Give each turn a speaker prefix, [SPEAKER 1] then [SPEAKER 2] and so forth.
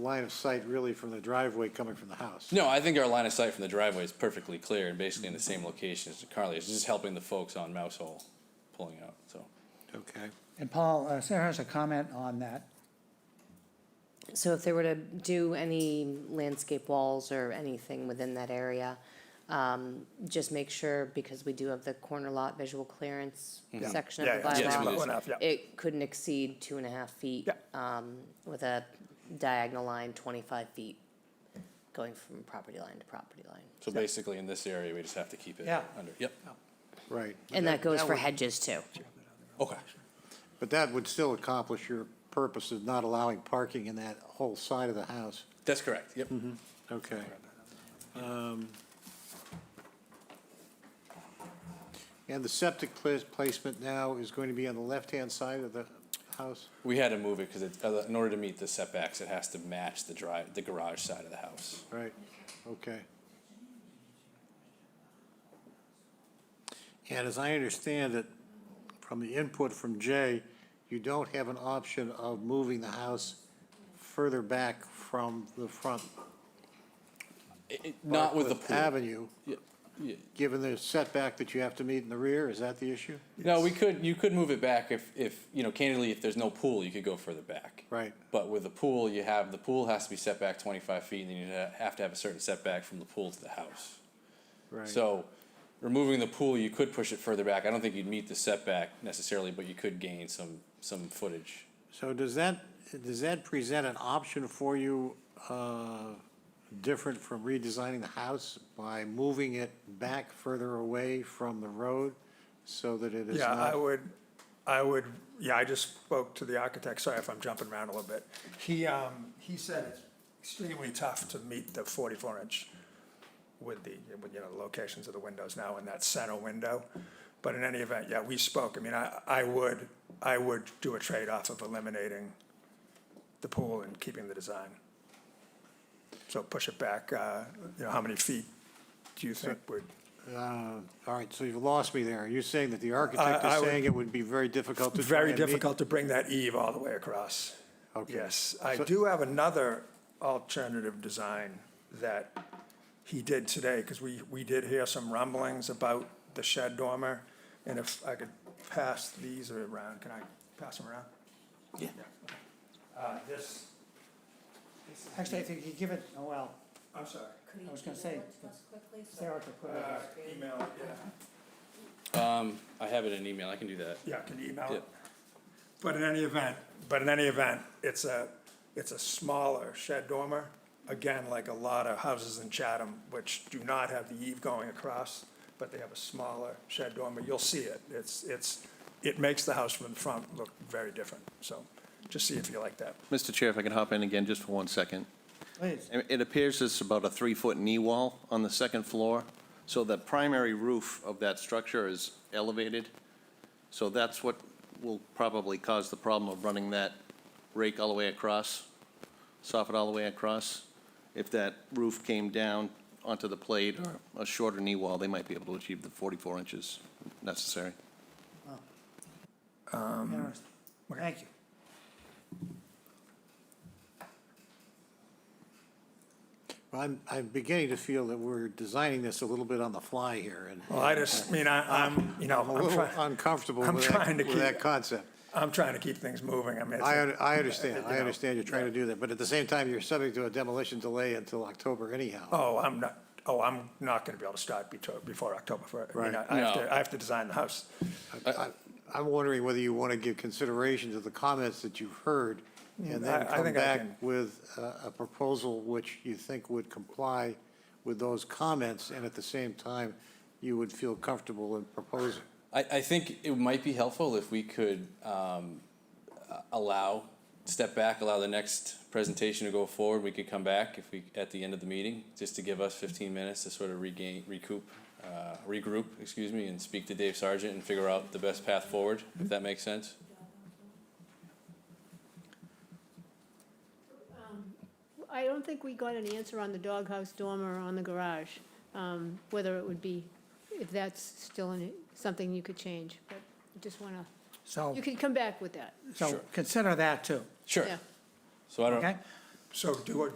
[SPEAKER 1] line of sight really from the driveway coming from the house.
[SPEAKER 2] No, I think our line of sight from the driveway is perfectly clear and basically in the same location as Carly. It's just helping the folks on Mouse Hole pulling out, so.
[SPEAKER 1] Okay.
[SPEAKER 3] And Paul, uh, Sarah has a comment on that.
[SPEAKER 4] So if they were to do any landscape walls or anything within that area, um, just make sure, because we do have the corner lot visual clearance section
[SPEAKER 5] Yeah,
[SPEAKER 4] of the
[SPEAKER 2] yeah. Yes,
[SPEAKER 4] bylaw.
[SPEAKER 2] we do.
[SPEAKER 5] Enough, yeah.
[SPEAKER 4] It couldn't exceed two and a half feet,
[SPEAKER 5] Yeah.
[SPEAKER 4] um, with a diagonal line twenty-five feet going from property line to property line.
[SPEAKER 2] So basically in this area, we just have to keep it
[SPEAKER 3] Yeah.
[SPEAKER 2] under, yep,
[SPEAKER 1] Right.
[SPEAKER 4] And that goes for
[SPEAKER 1] would-
[SPEAKER 4] hedges too.
[SPEAKER 2] okay.
[SPEAKER 1] But that would still accomplish your purpose of not allowing parking in that whole side of the house.
[SPEAKER 2] That's correct, yep.
[SPEAKER 1] Okay. Um, And the septic pla- placement now is going to be on the left-hand side of the house?
[SPEAKER 2] We had to move it because it, in order to meet the setbacks, it has to match the drive, the garage side of the house.
[SPEAKER 1] Right, okay. And as I understand it, from the input from Jay, you don't have an option of moving the house further back from the front.
[SPEAKER 2] It- it- Not with the
[SPEAKER 1] Barcliff
[SPEAKER 2] pool.
[SPEAKER 1] Avenue,
[SPEAKER 2] Yeah, yeah.
[SPEAKER 1] given the setback that you have to meet in the rear, is that the issue?
[SPEAKER 2] No, we could, you could move it back if, if, you know, candidly, if there's no pool, you could go further back.
[SPEAKER 1] Right.
[SPEAKER 2] But with the pool, you have, the pool has to be set back twenty-five feet, and then you ha- have to have a certain setback from the pool to the house.
[SPEAKER 1] Right.
[SPEAKER 2] So removing the pool, you could push it further back. I don't think you'd meet the setback necessarily, but you could gain some, some footage.
[SPEAKER 1] So does that, does that present an option for you, uh, different from redesigning the house by moving it back further away from the road so that it is
[SPEAKER 5] Yeah, I
[SPEAKER 1] not?
[SPEAKER 5] would, I would, yeah, I just spoke to the architect, sorry if I'm jumping around a little bit. He, um, he said it's extremely tough to meet the forty-four inch with the, with, you know, the locations of the windows now in that center window. But in any event, yeah, we spoke, I mean, I, I would, I would do a trade-off of eliminating the pool and keeping the design. So push it back, uh, you know, how many feet do you think would?
[SPEAKER 1] Uh, All right, so you've lost me there. You're saying that the architect
[SPEAKER 5] I
[SPEAKER 1] is
[SPEAKER 5] would-
[SPEAKER 1] saying it would be very difficult to try
[SPEAKER 5] Very
[SPEAKER 1] and meet-
[SPEAKER 5] difficult to bring that eve all the way across.
[SPEAKER 1] Okay.
[SPEAKER 5] Yes, I do have another alternative design that he did today, because we, we did hear some rumblings about the shed dormer. And if I could pass these around, can I pass them around? Yeah. Uh, this,
[SPEAKER 3] Actually, if you could give it, oh, well,
[SPEAKER 5] I'm sorry,
[SPEAKER 3] I was gonna say, Sarah could put it
[SPEAKER 5] uh,
[SPEAKER 3] up.
[SPEAKER 5] email, yeah.
[SPEAKER 2] I have it in email, I can do that.
[SPEAKER 5] Yeah, can you email
[SPEAKER 2] Yeah.
[SPEAKER 5] it? But in any event, but in any event, it's a, it's a smaller shed dormer. Again, like a lot of houses in Chatham, which do not have the eave going across, but they have a smaller shed dormer. You'll see it. It's, it's, it makes the house from the front look very different. So just see if you like that.
[SPEAKER 6] Mr. Chair, if I can hop in again just for one second.
[SPEAKER 3] Please,
[SPEAKER 6] It it appears it's about a three-foot knee wall on the second floor, so the primary roof of that structure is elevated. So that's what will probably cause the problem of running that rake all the way across, soffit all the way across. If that roof came down onto the plate or a shorter knee wall, they might be able to achieve the 44 inches necessary.
[SPEAKER 3] interesting. Thank you.
[SPEAKER 1] I'm, I'm beginning to feel that we're designing this a little bit on the fly here and
[SPEAKER 5] Well, I just, I mean, I, I'm, you know,
[SPEAKER 1] I'm a
[SPEAKER 5] Oh, I'm
[SPEAKER 1] little
[SPEAKER 5] trying,
[SPEAKER 1] uncomfortable
[SPEAKER 5] I'm
[SPEAKER 1] with
[SPEAKER 5] trying
[SPEAKER 1] that,
[SPEAKER 5] to
[SPEAKER 1] with that
[SPEAKER 5] keep-
[SPEAKER 1] concept.
[SPEAKER 5] I'm trying to keep things moving. I mean, it's
[SPEAKER 1] I,
[SPEAKER 5] a-
[SPEAKER 1] un- I understand,
[SPEAKER 5] you
[SPEAKER 1] I
[SPEAKER 5] know,
[SPEAKER 1] understand you're trying to do that, but at the same time, you're subject to a demolition delay until October anyhow.
[SPEAKER 5] oh, I'm not, oh, I'm not going to be able to start beto- before October 1st. I mean,
[SPEAKER 1] Right.
[SPEAKER 5] I I have
[SPEAKER 2] No.
[SPEAKER 5] to, I have to design the house.
[SPEAKER 1] I- I'm wondering whether you want to give consideration to the comments that you've heard and
[SPEAKER 5] I-
[SPEAKER 1] then
[SPEAKER 5] I
[SPEAKER 1] come
[SPEAKER 5] think I
[SPEAKER 1] back
[SPEAKER 5] can-
[SPEAKER 1] with a a proposal which you think would comply with those comments and at the same time, you would feel comfortable in proposing.
[SPEAKER 2] I, I think it might be helpful if we could um, uh, allow, step back, allow the next presentation to go forward. We could come back if we, at the end of the meeting, just to give us fifteen minutes to sort of regain, recoup, uh, regroup, excuse me, and speak to Dave Sargent and figure out the best path forward, if that makes sense.
[SPEAKER 7] I don't think we got an answer on the doghouse dormer on the garage, um, whether it would be, if that's still in- something you could change, but I just want to,
[SPEAKER 3] So,
[SPEAKER 7] you can come back with that,
[SPEAKER 3] so consider that too,
[SPEAKER 2] Sure.
[SPEAKER 7] yeah.
[SPEAKER 2] So I don't,
[SPEAKER 3] okay?
[SPEAKER 5] So do,